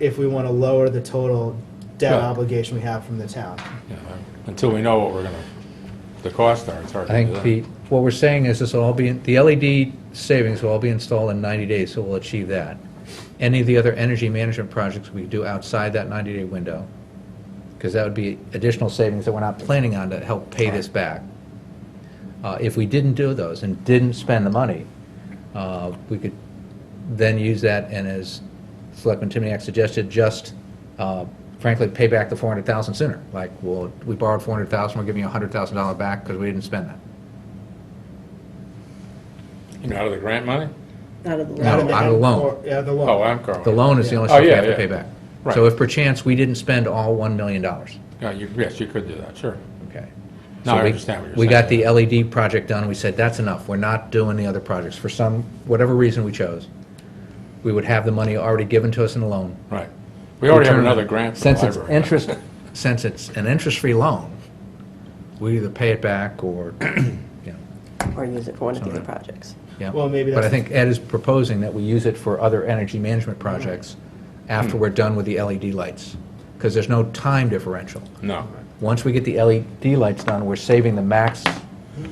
if we want to lower the total debt Yeah. obligation we have from the town. you know, until we know what we're gonna, the costs are, it's hard to I do think that. the, what we're saying is this will all be, the LED savings will all be installed in 90 days, so we'll achieve that. Any of the other energy management projects we do outside that 90-day window, because that would be additional savings that we're not planning on to help pay this back. Uh, If we didn't do those and didn't spend the money, uh, we could then use that and as Selectman Timniak suggested, just uh, frankly, pay back the 400,000 sooner. Like, well, we borrowed 400,000, we're giving you $100,000 back because we didn't spend that. You mean, out of the grant money? Out of the No, loan. out of the loan. Or- Yeah, the Oh, loan. I'm Carl. The loan is the only Oh, stuff we yeah, have to yeah. pay back. Right. So if perchance we didn't spend all $1 million, Yeah, you, yes, you could do that, sure. okay? No, So I we- understand what you're We got saying. the LED project done, we said, that's enough, we're not doing the other projects. For some, whatever reason we chose, we would have the money already given to us in a loan. Right. We already have Return- another grant for the Since it's library. interest, since it's an interest-free loan, we either pay it back or, you know, Or use it for one of the other Something. projects. yeah. Well, maybe But I that's- think Ed is proposing that we use it for other energy management projects after we're done with the LED lights, because there's no time differential. No. Once we get the LED lights done, we're saving the max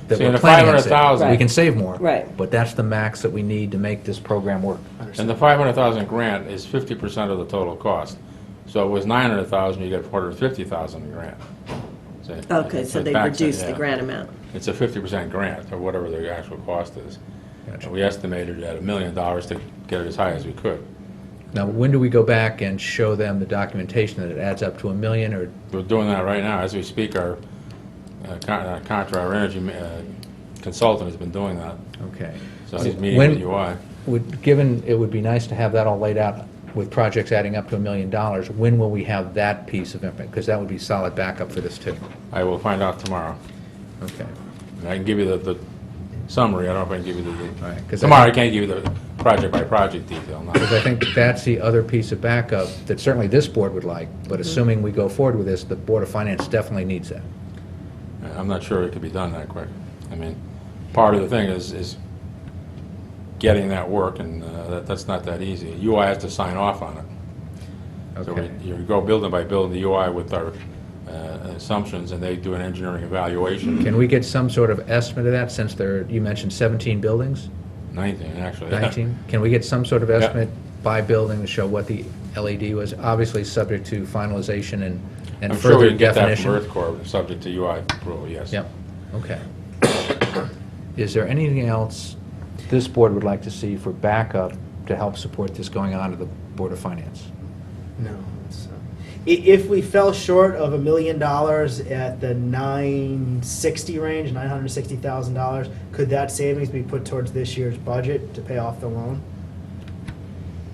that See, and we're the planning on saving. $500,000 We can save more. Right. But that's the max that we need to make this program work. And the five hundred thousand grant is fifty percent of the total cost. So it was nine hundred thousand, you get four hundred fifty thousand grant. See? Okay, It's so a they tax- reduced the yeah. grant amount. It's a fifty percent grant, or whatever the actual cost is. Gotcha. And We estimated at a million dollars to get it as high as we could. Now, when do we go back and show them the documentation that it adds up to a million or We're doing that right now, as we speak, our uh, con- uh, contra, our energy ma- uh, consultant has been doing that, Okay. so he's meeting When- with UI. Would, given, it would be nice to have that all laid out with projects adding up to a million dollars, when will we have that piece of information? Because that would be solid backup for this too. I will find out tomorrow. Okay. And I can give you the, the summary, I don't know if I can give you the- Right, 'cause the, I tomorrow I think- can't give you the project-by-project detail, no. Because I think that's the other piece of backup that certainly this board would like, but Mm-hmm. assuming we go forward with this, the Board of Finance definitely needs that. I'm not sure it could be done that quick. I mean, part of the thing is, is getting that work, and uh, that, that's not that easy. UI has to sign off on it. So Okay. we- you go building by building, the UI with our uh, assumptions, and they do an engineering evaluation, Can we get some sort of estimate of that, since there, you mentioned 17 buildings, 19, actually. 19? Can we get some sort of estimate by building to show what the LED was, obviously subject to finalization and, and I'm sure we further can get that definition? from Earth Corps, subject to UI approval, yes. Yep, okay. Is there anything else this board would like to see for backup to help support this going on to the Board of Finance? No. it's, uh, i- If we fell short of a million dollars at the nine sixty range, nine hundred sixty thousand dollars, could that savings be put towards this year's budget to pay off the loan?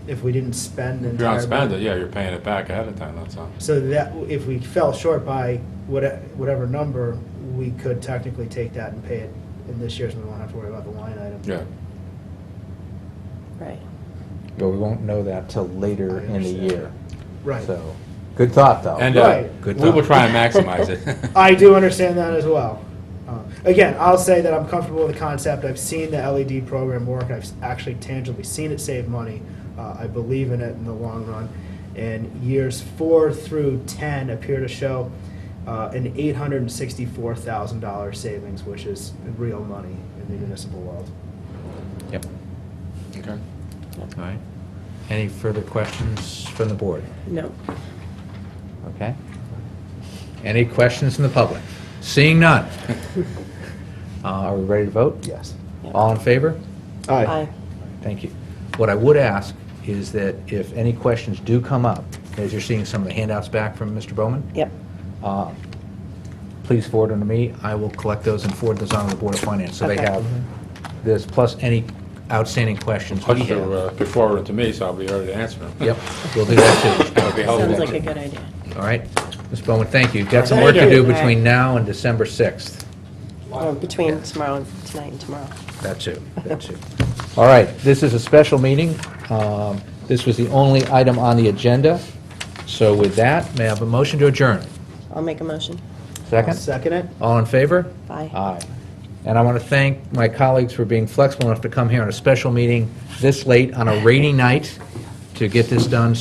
If we didn't spend the If you don't entire. spend it, yeah, you're paying it back ahead of time, that's all. So that, if we fell short by whate- whatever number, we could technically take that and pay it in this year's, and we won't have to worry about the line item. Yeah. Right. But we won't know that till later I in the understand. year. Right. So, good thought, though. And uh, Right. Good we will thought. try and maximize it. I do understand that as well. Uh, Again, I'll say that I'm comfortable with the concept. I've seen the LED program work. I've s- actually tangibly seen it save money. Uh, I believe in it in the long run. And years four through 10 appear to show uh, an $864,000 savings, which is real money in the municipal world. Yep, Okay. all right. Any further questions from the board? No. Okay. Any questions from the public? Seeing none. Uh, Are we ready to vote? Yes. All in favor? Aye. Thank you. What I would ask is that if any questions do come up, as you're seeing some of the handouts back from Mr. Bowman, Yep. uh, please forward them to me. I will collect those and forward those on to the Board of Finance, so they Okay. have this, plus any outstanding questions we Plus, they'll, uh, have. be forwarded to me, so I'll be ready to answer them. Yep, we'll do that That'll be helpful. Sounds like a good idea. too. All right? Ms. Bowman, thank you. You've Got some Thank work to you. do All right. between now and December 6th. Well, between tomorrow and tonight and tomorrow. That too, that too. All right, this is a special meeting. Um, This was the only item on the agenda. So with that, may I have a motion to adjourn? I'll make a motion. Second? Second it? All in favor? Aye. Aye. And I want to thank my colleagues for being flexible enough to come here on a special meeting this late on a rainy night to get this done